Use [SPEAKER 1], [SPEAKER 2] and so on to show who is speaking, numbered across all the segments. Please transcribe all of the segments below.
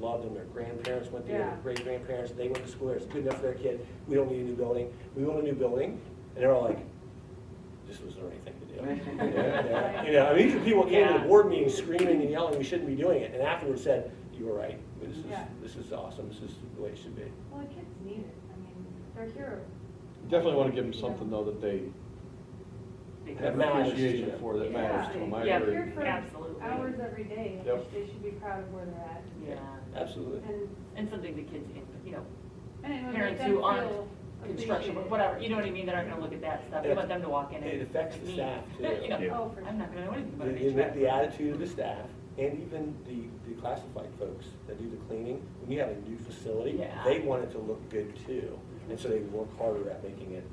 [SPEAKER 1] loved them, their grandparents went there,
[SPEAKER 2] Yeah.
[SPEAKER 1] their great-grandparents, they went to school there, it's good enough for their kid, we don't need a new building, we want a new building, and they're all like, this was the right thing to do. Yeah, yeah. You know, I mean, these are people who came to the
[SPEAKER 2] Yeah.
[SPEAKER 1] board meeting screaming and yelling, we shouldn't be doing it, and afterwards said, you were right, this is,
[SPEAKER 2] Yeah.
[SPEAKER 1] this is awesome, this is the way it should be.
[SPEAKER 3] Well, the kids need it, I mean, they're here.
[SPEAKER 4] Definitely want to give them something though that they have an
[SPEAKER 1] matters to
[SPEAKER 4] appreciation
[SPEAKER 1] them.
[SPEAKER 4] for that
[SPEAKER 3] Yeah,
[SPEAKER 4] matters to them. I
[SPEAKER 3] they-
[SPEAKER 2] Yeah.
[SPEAKER 4] agree.
[SPEAKER 3] They're here for
[SPEAKER 2] Absolutely.
[SPEAKER 3] hours every day, and
[SPEAKER 4] Yep.
[SPEAKER 3] they should be proud of where they're at.
[SPEAKER 2] Yeah,
[SPEAKER 1] Absolutely.
[SPEAKER 3] And,
[SPEAKER 2] and something the kids, in- you know,
[SPEAKER 3] and it would make
[SPEAKER 2] parents
[SPEAKER 3] them
[SPEAKER 2] who aren't
[SPEAKER 3] feel
[SPEAKER 2] construction,
[SPEAKER 3] appreciated.
[SPEAKER 2] whatever, you know what I mean, that aren't gonna look at that stuff, you want them to walk in and.
[SPEAKER 1] It affects the
[SPEAKER 2] like me,
[SPEAKER 1] staff, too.
[SPEAKER 2] you know,
[SPEAKER 5] Yeah.
[SPEAKER 3] Oh, for
[SPEAKER 2] I'm not gonna know anything
[SPEAKER 1] The,
[SPEAKER 2] about an
[SPEAKER 1] the- the
[SPEAKER 2] HVAC.
[SPEAKER 1] attitude of the staff, and even the, the classified folks that do the cleaning, when you have a new facility,
[SPEAKER 2] Yeah.
[SPEAKER 1] they want it to look good too. And so they work harder at making it,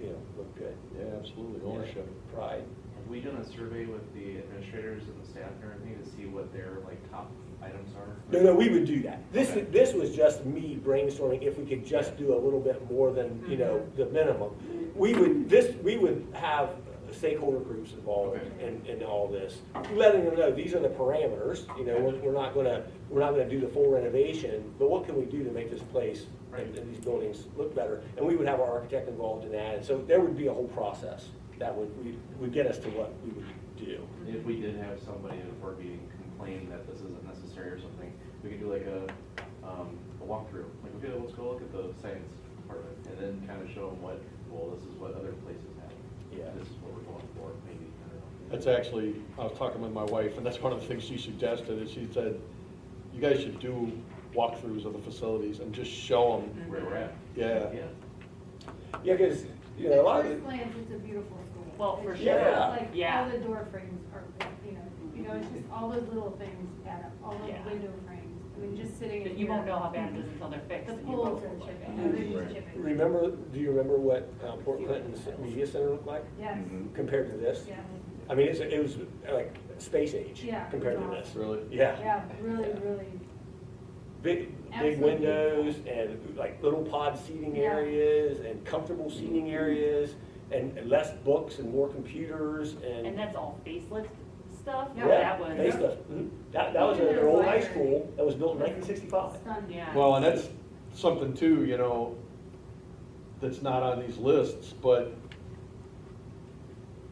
[SPEAKER 1] you know, look good.
[SPEAKER 4] Yeah, absolutely, ownership.
[SPEAKER 1] Pride.
[SPEAKER 5] Have we done a survey with the administrators and the staff and everything to see what their like top items are?
[SPEAKER 1] No, no, we would do that. This, this was just me brainstorming if we could just do a little bit more than, you know, the minimum. We would, this, we would have stakeholder groups involved in, in all this, letting them know, these are the parameters, you know, we're, we're not gonna, we're not gonna do the full renovation, but what can we do to make this place and, and these buildings look better? And we would have our architect involved in that, and so there would be a whole process that would, we, would get us to what we would do.
[SPEAKER 5] If we did have somebody at a board meeting complain that this isn't necessary or something, we could do like a, um, a walkthrough, like, okay, let's go look at the science department, and then kind of show them what, well, this is what other places have.
[SPEAKER 1] Yeah.
[SPEAKER 5] This is what we're going for, maybe, I don't know.
[SPEAKER 4] That's actually, I was talking with my wife, and that's one of the things she suggested, is she said, you guys should do walkthroughs of the facilities and just show them.
[SPEAKER 1] Mm-hmm.
[SPEAKER 5] Where we're at.
[SPEAKER 4] Yeah.
[SPEAKER 5] Yeah.
[SPEAKER 1] Yeah, cause, you know, a lot of.
[SPEAKER 3] At
[SPEAKER 1] the-
[SPEAKER 3] first glance, it's a beautiful school.
[SPEAKER 2] Well, for
[SPEAKER 3] It's
[SPEAKER 1] sure.
[SPEAKER 3] just
[SPEAKER 1] Yeah.
[SPEAKER 3] Like,
[SPEAKER 2] Yeah.
[SPEAKER 3] all the door frames are, you know, you know, it's just all those little things add up, all
[SPEAKER 2] Yeah.
[SPEAKER 3] those window frames, I mean, just sitting in
[SPEAKER 2] But
[SPEAKER 3] here.
[SPEAKER 2] you won't know how bad it is until they're fixed.
[SPEAKER 3] The
[SPEAKER 2] and you
[SPEAKER 3] poles
[SPEAKER 2] go,
[SPEAKER 3] are
[SPEAKER 2] "Oh my
[SPEAKER 3] chipping,
[SPEAKER 2] God."
[SPEAKER 3] you know, they're
[SPEAKER 5] Right.
[SPEAKER 3] just chipping.
[SPEAKER 1] Remember, do you remember what uh, Port Clinton's media center looked like
[SPEAKER 3] Yes,
[SPEAKER 5] Mhm.
[SPEAKER 1] compared to this?
[SPEAKER 3] yeah,
[SPEAKER 1] I mean, it's, it was like space age
[SPEAKER 3] Yeah.
[SPEAKER 1] compared to this.
[SPEAKER 4] Really?
[SPEAKER 1] Yeah,
[SPEAKER 3] yeah, really,
[SPEAKER 1] Yeah.
[SPEAKER 3] really.
[SPEAKER 1] big, big
[SPEAKER 3] Absolutely.
[SPEAKER 1] windows and like little pod seating
[SPEAKER 3] Yeah.
[SPEAKER 1] areas and comfortable seating areas and and less books and more computers
[SPEAKER 2] And
[SPEAKER 1] and.
[SPEAKER 2] that's all facelift stuff,
[SPEAKER 3] Yeah.
[SPEAKER 2] or that was.
[SPEAKER 1] Base stuff. Mhm. That, that was an
[SPEAKER 3] Even
[SPEAKER 1] old
[SPEAKER 3] their
[SPEAKER 1] high
[SPEAKER 3] library.
[SPEAKER 1] school that was built in nineteen sixty-five.
[SPEAKER 3] Stunning.
[SPEAKER 2] Yeah.
[SPEAKER 4] Well, and that's something too, you know, that's not on these lists, but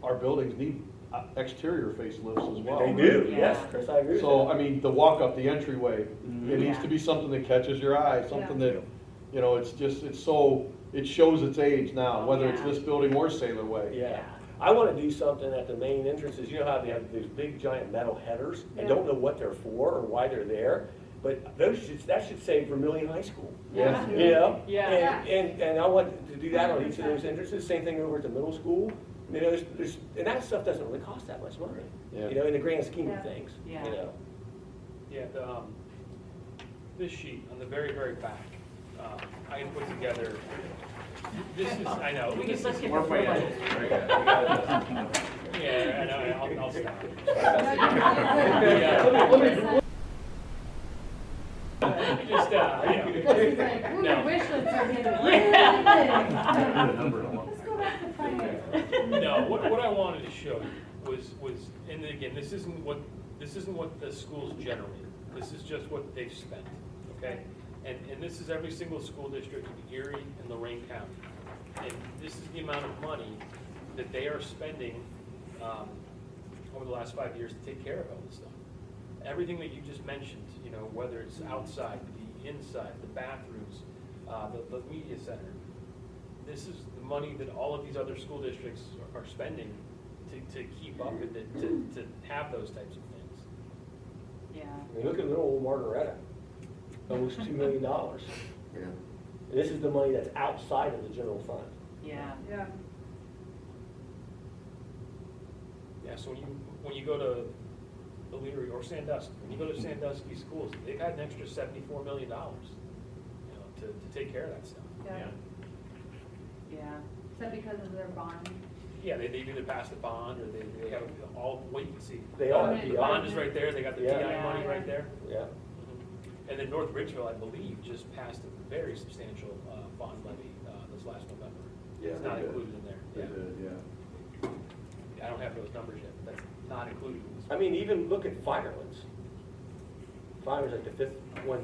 [SPEAKER 4] our buildings need uh, exterior facelifts as well.
[SPEAKER 1] They do,
[SPEAKER 2] Yeah.
[SPEAKER 1] yes, Chris, I agree with
[SPEAKER 4] So,
[SPEAKER 1] that.
[SPEAKER 4] I mean, the walk up, the entryway,
[SPEAKER 1] Mhm.
[SPEAKER 4] it needs to be something that catches your eye, something that, you know, it's just, it's so, it shows its age now,
[SPEAKER 2] Oh,
[SPEAKER 4] whether it's
[SPEAKER 2] yeah.
[SPEAKER 4] this building or Sailor Way.
[SPEAKER 1] Yeah.
[SPEAKER 2] Yeah.
[SPEAKER 1] I want to do something at the main entrances, you know how they have these big giant metal headers? I
[SPEAKER 3] Yeah.
[SPEAKER 1] don't know what they're for or why they're there, but those should, that should say Vermillion High School.
[SPEAKER 4] Yeah.
[SPEAKER 1] You know?
[SPEAKER 2] Yeah.
[SPEAKER 1] And, and, and I want to do that on each of those entrances, same thing over at the middle school. You know, there's, there's, and that stuff doesn't really cost that much money,
[SPEAKER 4] Yeah.
[SPEAKER 1] you know, in the grand scheme
[SPEAKER 3] Yeah.
[SPEAKER 1] of things, you
[SPEAKER 2] Yeah.
[SPEAKER 1] know?
[SPEAKER 6] Yeah, the, um, this sheet on the very, very back, um, I had put together, this is, I know.
[SPEAKER 2] We
[SPEAKER 6] this
[SPEAKER 2] can, let's
[SPEAKER 6] is-
[SPEAKER 2] get
[SPEAKER 5] More
[SPEAKER 2] the floor
[SPEAKER 5] financials,
[SPEAKER 2] budget.
[SPEAKER 5] right, yeah, we got this.
[SPEAKER 6] Yeah, I know, I'll, I'll stop. I Just, uh, you know,
[SPEAKER 3] This is like, ooh,
[SPEAKER 6] No.
[SPEAKER 3] wish lists are getting really
[SPEAKER 5] I haven't
[SPEAKER 3] big.
[SPEAKER 5] heard a number in a long time.
[SPEAKER 3] Let's go back to finance.
[SPEAKER 6] no, what, what I wanted to show you was, was, and again, this isn't what, this isn't what the schools generated. This is just what they've spent, okay? And, and this is every single school district in Erie and Lorraine County. And this is the amount of money that they are spending, um, over the last five years to take care of all this stuff. Everything that you just mentioned, you know, whether it's outside, the inside, the bathrooms, uh, the, the media center, this is the money that all of these other school districts are spending to, to keep up with it, to, to have those types of things.
[SPEAKER 2] Yeah.
[SPEAKER 1] I mean, look at little old Margaretta, almost two million dollars.
[SPEAKER 5] Yeah.
[SPEAKER 1] And this is the money that's outside of the general fund.
[SPEAKER 2] Yeah.
[SPEAKER 3] Yeah,
[SPEAKER 6] Yeah, so when you, when you go to Illyria or Sandusky, when you go to Sandusky schools, they've had an extra seventy-four million dollars, you know, to, to take care of that stuff.
[SPEAKER 3] yeah.
[SPEAKER 5] Yeah.
[SPEAKER 2] Yeah.
[SPEAKER 3] Is that because of their bond?
[SPEAKER 6] Yeah, they, they either pass the bond or they, they have all wait and see.
[SPEAKER 1] They all
[SPEAKER 3] have
[SPEAKER 6] The
[SPEAKER 3] PI.
[SPEAKER 6] bond is right there, they got the
[SPEAKER 1] Yeah.
[SPEAKER 6] PI money
[SPEAKER 2] Yeah.
[SPEAKER 6] right there.
[SPEAKER 1] Yeah.
[SPEAKER 6] And then North Ridgeville, I believe, just passed a very substantial uh, bond levy uh, this last November.
[SPEAKER 4] Yeah,
[SPEAKER 6] It's not
[SPEAKER 4] they did.
[SPEAKER 6] included in there. Yeah. I don't have those numbers yet, but that's not included in this.
[SPEAKER 1] I mean, even look at firelands. Fireland's like the fifth one